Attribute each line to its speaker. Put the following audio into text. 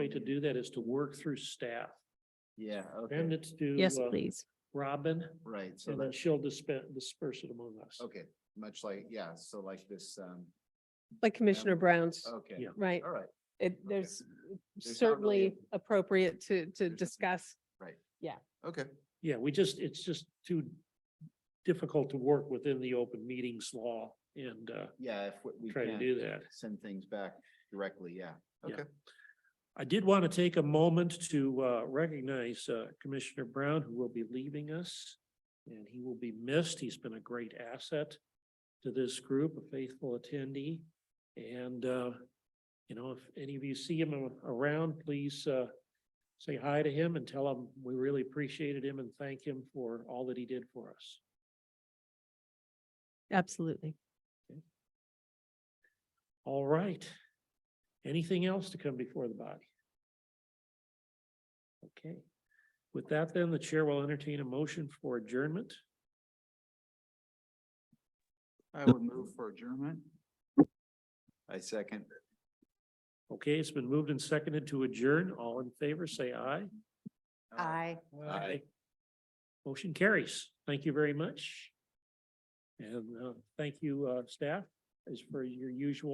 Speaker 1: to do that is to work through staff.
Speaker 2: Yeah, okay,
Speaker 1: And it's to.
Speaker 3: Yes,
Speaker 1: uh,
Speaker 3: please.
Speaker 1: Robin,
Speaker 2: right, so
Speaker 1: and then
Speaker 2: that's,
Speaker 1: she'll dispense, disperse it among us.
Speaker 2: okay, much like, yeah, so like this, um,
Speaker 4: Like Commissioner Brown's,
Speaker 2: okay,
Speaker 1: Yeah.
Speaker 4: right?
Speaker 2: all right,
Speaker 4: It,
Speaker 2: okay. There's
Speaker 4: there's
Speaker 2: not really a-
Speaker 4: certainly appropriate to, to
Speaker 2: not-
Speaker 4: discuss.
Speaker 2: okay,
Speaker 1: Yeah, we just, it's just too difficult to work within the open meetings law and uh,
Speaker 2: yeah, if we- we
Speaker 1: try to
Speaker 2: can
Speaker 1: do that.
Speaker 2: send things back directly, yeah,
Speaker 1: Yeah.
Speaker 2: okay.
Speaker 1: I did want to take a moment to uh, recognize uh, Commissioner Brown, who will be leaving us. And he will be missed. He's been a great asset to this group, a faithful attendee. And, uh, you know, if any of you see him a- around, please uh, say hi to him and tell him we really appreciated him and thank him for all that he did for us.
Speaker 3: Absolutely.
Speaker 1: All right. Anything else to come before the body? Okay. With that then, the chair will entertain a motion for adjournment.
Speaker 2: I would move for adjournment. I second.
Speaker 1: Okay, it's been moved and seconded to adjourn. All in favor, say aye.
Speaker 2: Aye.
Speaker 1: Motion carries. Thank you very much. And uh, thank you, uh, staff, as for your usual.